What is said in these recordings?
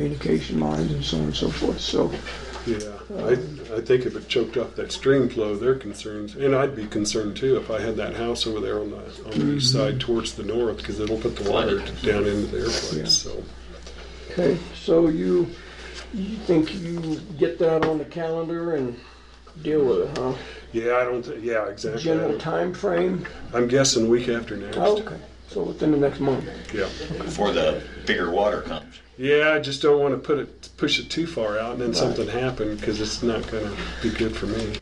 communication lines and so on and so forth. So, Yeah, I, I think if it choked off that stream flow, they're concerned, and I'd be concerned too if I had that house over there on the, on the east side towards the north, because it'll put the water down into their Yeah. place, so. okay, so you, you think you get that on the calendar and deal with it, huh? Yeah, I don't, thi- yeah, exactly. I General don't- time frame? I'm guessing week after next. Oh, okay, so within the next month. Yeah. before the bigger water comes. Yeah, I just don't want to put it, push it too far out and then something happen because it's not going to be good for me.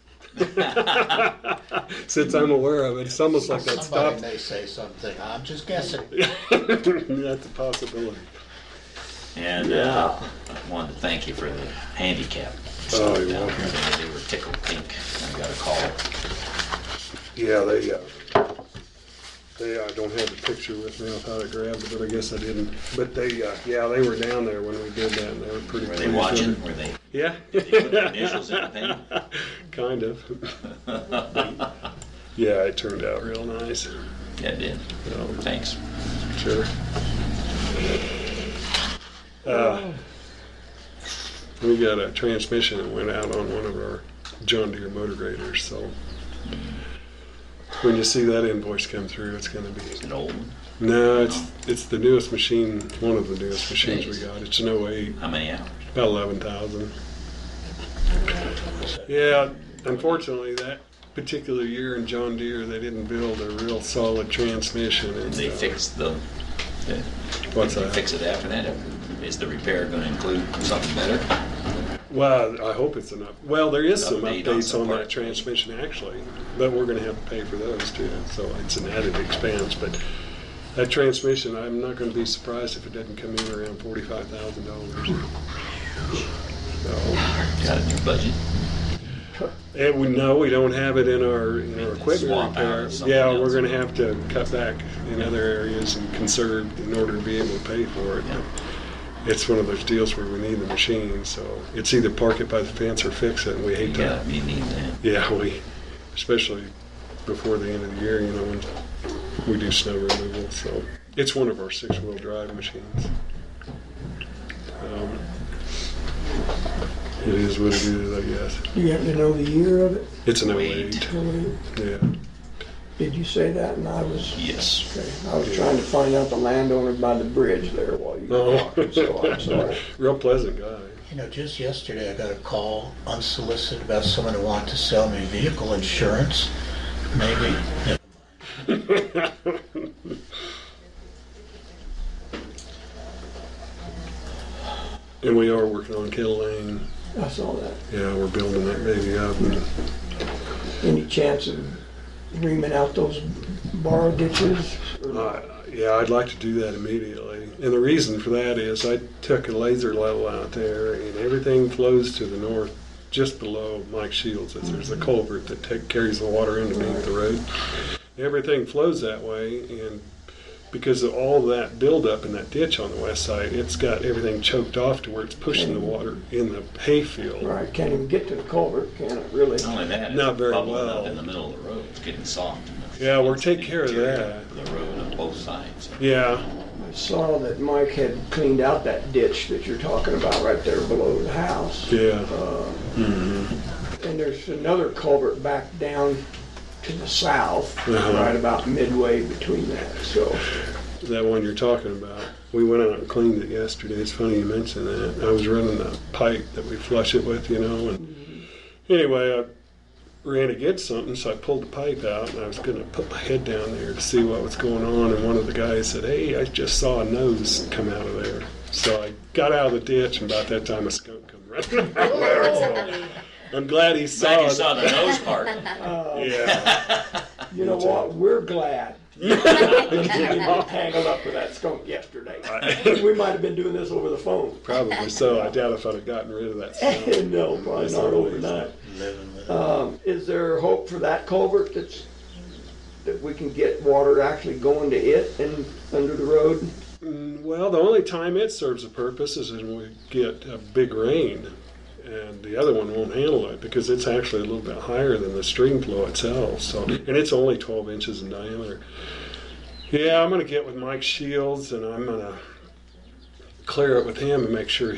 Since I'm aware of it, it's almost like that Somebody stop. may say something, I'm just guessing. That's a possibility. And uh, I wanted to thank you for the handicap. Oh, you're down welcome. there. They were tickled pink. I got a call. Yeah, they, uh, they, I don't have the picture with me. I thought I grabbed it, but I guess I didn't. But they, uh, yeah, they were down there when we did that and they were pretty. Were pleased they with watching? it. Were they Yeah, put their initials in the thing? kind of. Yeah, it turned out real nice. Yeah, it did. So, Thanks. Sure. Uh, We got a transmission that went out on one of our John Deere motor graders, so when you see that invoice come through, it's gonna be, An old one. no, it's, it's the newest machine, one of the newest machines we got. It's an '08, How many hours? about eleven thousand. Yeah, unfortunately, that particular year in John Deere, they didn't build a real solid transmission. and, They uh, fixed the. the What's they that? fix it after that. Is the repair going to include something better? Well, I hope it's enough. Well, there is some Update on updates the on that part. transmission actually, but we're gonna have to pay for those too, so it's an added expense, but that transmission, I'm not gonna be surprised if it doesn't come in around forty-five thousand dollars. So, Got a new budget. and we know we don't have it in our, in our equipment Swap out repair. something Yeah, we're else. gonna have to cut back in other areas and conserve in order to be able to pay for it. Yeah. But It's one of those deals where we need the machine, so it's either park it by the fence or fix it, and we hate that. Yeah, you need that. Yeah, we, especially before the end of the year, you know, when we do snow removal, so it's one of our six-wheel drive machines. Um, It is what it is, I guess. Do you happen to know the year of it? It's an Wait. 08, yeah. Did you say that and I was? Yes. Okay, I was trying to find out the landowner by the bridge there while you were talking, so I'm sorry. Oh, real pleasant guy. You know, just yesterday I got a call unsolicited about someone who wanted to sell me vehicle insurance. Maybe, And we are working on Kettle Lane, I saw that. yeah, we're building that baby up. and- Any chance of reaming out those borrow ditches? Uh, yeah, I'd like to do that immediately. And the reason for that is I took a laser level out there and everything flows to the north just below Mike Shields. As there's a culvert that take, carries the water underneath the road. Everything flows that way and because of all that buildup in that ditch on the west side, it's got everything choked off to where it's pushing the water in the hayfield. Right, can't even get to the culvert, can it really? Not only that, it's Not very bubbling well. up in the middle of the road. It's getting soft. in the- Yeah, we'll it's take the care of interior that. of The road on both sides. Yeah, I saw that Mike had cleaned out that ditch that you're talking about right there below the house. Uh, yeah. Mm-hmm. And there's another culvert back down to the south, Uh-huh. right about midway between that, so. That one you're talking about. We went out and cleaned it yesterday. It's funny you mentioned that. I was running the pipe that we flush it with, you know, and anyway, I ran against something, so I pulled the pipe out and I was going to put my head down there to see what was going on. And one of the guys said, Hey, I just saw a nose come out of there. So I got out of the ditch, and about that time, a skunk come running out of there. So I'm glad he saw Oh. Glad you it. saw the nose part. Yeah. You know what, we're glad that we didn't get tangled up with that skunk yesterday. We might have been doing this over the phone. Probably so. I doubt if I'd have gotten rid of that skunk. No, probably not overnight. living with Um, Is there hope for that culvert that's, that we can get water actually going to it and under the road? Mm, Well, the only time it serves a purpose is when we get a big rain, and the other one won't handle it because it's actually a little bit higher than the stream flow itself. So, and it's only 12 inches in diameter. Yeah, I'm gonna get with Mike Shields, and I'm gonna clear it with him and make sure